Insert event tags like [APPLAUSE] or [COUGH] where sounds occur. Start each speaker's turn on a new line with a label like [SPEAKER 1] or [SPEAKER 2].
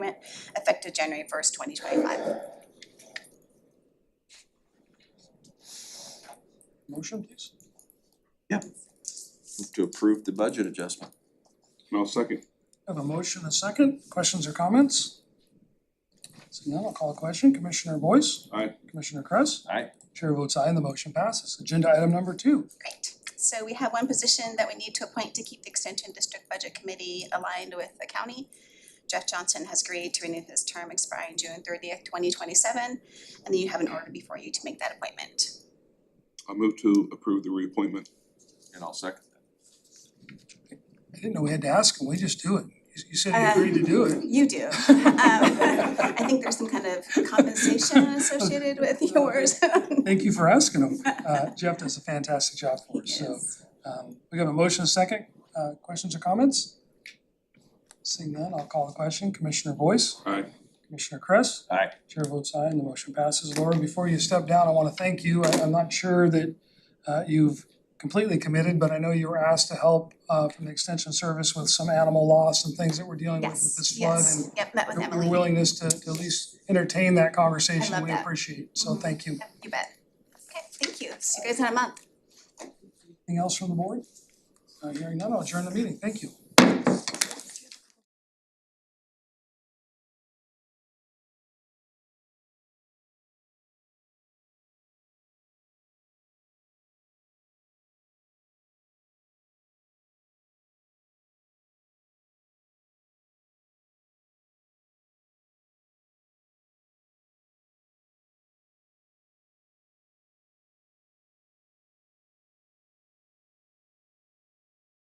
[SPEAKER 1] agreement effective January first, twenty twenty-five.
[SPEAKER 2] Motion, please.
[SPEAKER 3] Move to approve the budget adjustment.
[SPEAKER 4] No second.
[SPEAKER 2] Have a motion, and a second. Questions or comments? Seeing none, I'll call a question. Commissioner Boyce?
[SPEAKER 4] Aye.
[SPEAKER 2] Commissioner Kress?
[SPEAKER 3] Aye.
[SPEAKER 2] Chair votes aye and the motion passes. Agenda item number two.
[SPEAKER 1] Great, so we have one position that we need to appoint to keep the Extension District Budget Committee aligned with the county. Jeff Johnson has agreed to renew his term expiring June thirtieth, twenty twenty-seven, and then you have an order before you to make that appointment.
[SPEAKER 4] I'll move to approve the reappointment.
[SPEAKER 3] And I'll second that.
[SPEAKER 2] I didn't know we had to ask him. We just do it. You- You said you agreed to do
[SPEAKER 1] [LAUGHS]
[SPEAKER 2] it.
[SPEAKER 1] You do. Um, I think there's some kind of compensation associated with yours.
[SPEAKER 2] Thank you for asking him. Uh, Jeff does a fantastic job for us,
[SPEAKER 1] [LAUGHS]
[SPEAKER 2] so.
[SPEAKER 1] Yes.
[SPEAKER 2] Um, we have a motion, and a second. Uh, questions or comments? Seeing none, I'll call the question. Commissioner Boyce?
[SPEAKER 4] Aye.
[SPEAKER 2] Commissioner Kress?
[SPEAKER 3] Aye.
[SPEAKER 2] Chair votes aye and the motion passes. Laura, before you step down, I wanna thank you. I I'm not sure that uh you've completely committed, but I know you were asked to help uh from the extension service with some animal loss and things that we're dealing with with this
[SPEAKER 1] Yes,
[SPEAKER 2] flood
[SPEAKER 1] yes,
[SPEAKER 2] and
[SPEAKER 1] yep, met with
[SPEAKER 2] your-
[SPEAKER 1] Emily.
[SPEAKER 2] your willingness to to at least entertain that
[SPEAKER 1] I
[SPEAKER 2] conversation,
[SPEAKER 1] love
[SPEAKER 2] we
[SPEAKER 1] that.
[SPEAKER 2] appreciate. So
[SPEAKER 1] Mhm.
[SPEAKER 2] thank you.
[SPEAKER 1] Yep, You bet. Okay, thank you. See you guys in a month.
[SPEAKER 2] Anything else from the board? Uh hearing none, I'll adjourn the meeting. Thank you.